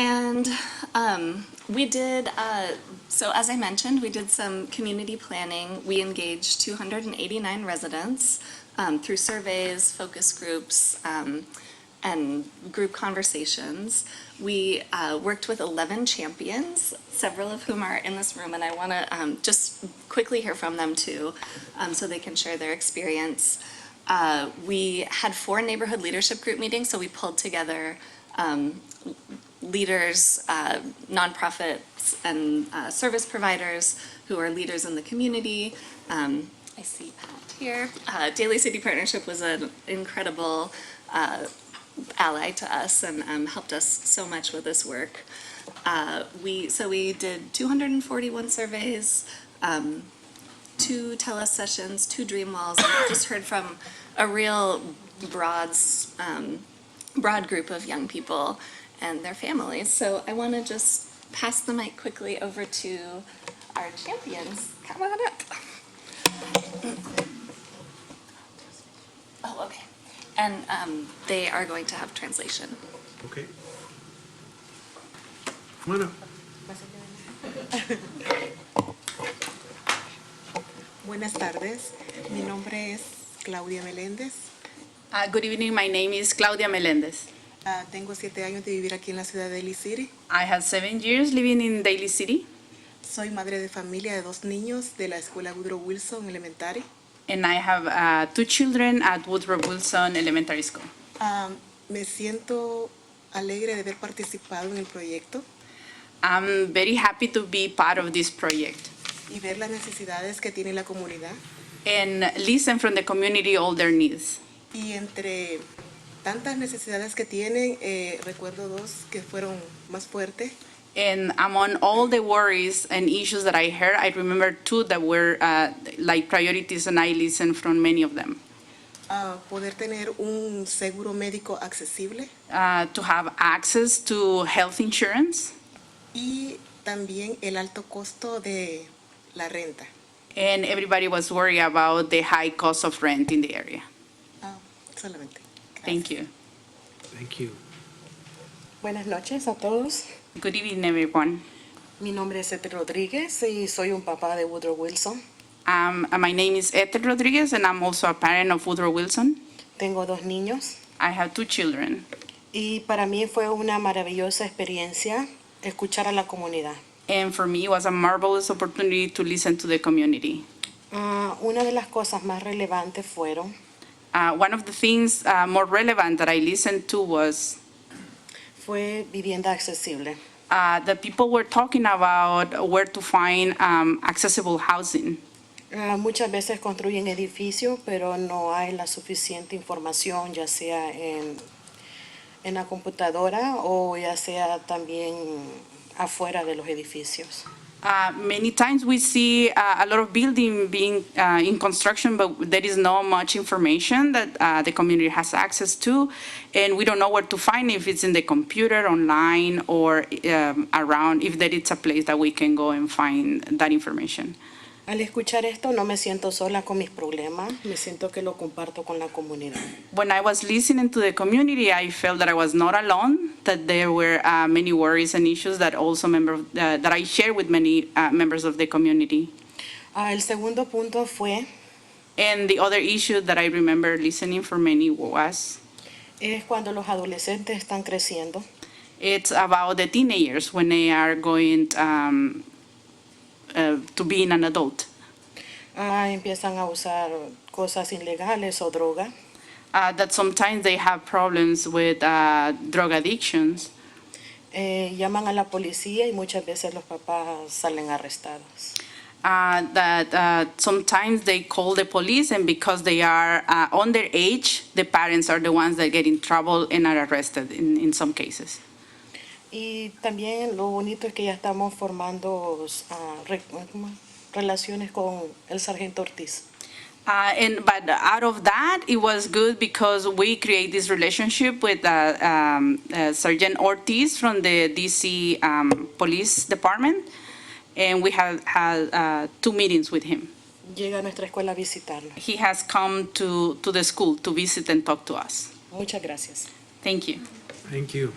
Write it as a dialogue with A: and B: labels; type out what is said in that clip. A: And um, we did, uh, so as I mentioned, we did some community planning. We engaged 289 residents um, through surveys, focus groups, um, and group conversations. We uh, worked with 11 champions, several of whom are in this room, and I want to just quickly hear from them too, um, so they can share their experience. Uh, We had four neighborhood leadership group meetings, so we pulled together leaders, uh, nonprofits, and uh, service providers who are leaders in the community. Um, I see Pat here. Uh, Daily City Partnership was an incredible uh, ally to us and um, helped us so much with this work. Uh, we so we did 241 surveys, um, two tele sessions, two dream walls. And I just heard from a real broad broad group of young people and their families. So I want to just pass the mic quickly over to our champions. Come on up. Oh, okay. And um, they are going to have translation.
B: Okay. Come on up.
C: Buenas tardes, mi nombre es Claudia Meléndez.
D: Uh, good evening. My name is Claudia Melendez.
C: Ah, tengo siete años de vivir aquí en la ciudad de Lee City.
D: I have seven years living in Daly City,
C: Soy madre de familia de dos niños de la escuela Woodrow Wilson Elementary.
D: and I have uh, two children at Woodrow Wilson Elementary School.
C: Ah, me siento alegre de haber participado en el proyecto
D: I'm very happy to be part of this project
C: y ver las necesidades que tiene la comunidad.
D: and listen from the community all their needs.
C: Y entre tantas necesidades que tienen, eh, recuerdo dos que fueron más fuertes.
D: And among all the worries and issues that I heard, I remember two that were uh, like priorities, and I listened from many of them.
C: Ah, poder tener un seguro médico accesible
D: Uh, to have access to health insurance
C: y también el alto costo de la renta.
D: and everybody was worried about the high cost of rent in the area.
C: Ah, solamente.
D: Thank you.
B: Thank you.
E: Buenas noches a todos.
D: Good evening, everyone.
E: Mi nombre es Ethel Rodríguez y soy un papá de Woodrow Wilson.
D: Um, uh, my name is Ethel Rodriguez, and I'm also a parent of Woodrow Wilson.
E: Tengo dos niños
D: I have two children,
E: y para mí fue una maravillosa experiencia escuchar a la comunidad.
D: and for me, it was a marvelous opportunity to listen to the community.
E: Ah, una de las cosas más relevantes fueron
D: Uh, one of the things uh, more relevant that I listened to was
E: fue vivienda accesible.
D: uh, that people were talking about where to find um, accessible housing.
E: Ah, muchas veces construyen edificios, pero no hay la suficiente información, ya sea en, en la computadora o ya sea también afuera de los edificios.
D: Uh, many times we see uh, a lot of building being uh, in construction, but there is not much information that uh, the community has access to, and we don't know where to find if it's in the computer, online, or um, around. If there is a place that we can go and find that information.
E: Al escuchar esto no me siento sola con mis problemas, me siento que lo comparto con la comunidad.
D: When I was listening to the community, I felt that I was not alone. That there were uh, many worries and issues that also member of- uh, that I shared with many uh, members of the community.
E: Ah, el segundo punto fue
D: And the other issue that I remember listening for many was
E: es cuando los adolescentes están creciendo
D: it's about the teenagers when they are going um, uh, to being an adult.
E: ah, empiezan a usar cosas ilegales o droga
D: Uh, that sometimes they have problems with uh, drug addictions.
E: eh, llaman a la policía y muchas veces los papás salen arrestados
D: Uh, that uh, sometimes they call the police, and because they are uh, underage, the parents are the ones that get in trouble and are arrested in, in some cases.
E: y también lo bonito es que ya estamos formando ah, re- ¿cómo? relaciones con el sargento Ortiz
D: Uh, and but out of that, it was good because we create this relationship with uh, um, uh, Sergeant Ortiz from the DC um, Police Department, and we have had uh, two meetings with him.
E: llega a nuestra escuela a visitarnos
D: He has come to to the school to visit and talk to us.
E: muchas gracias
D: Thank you.
B: Thank you.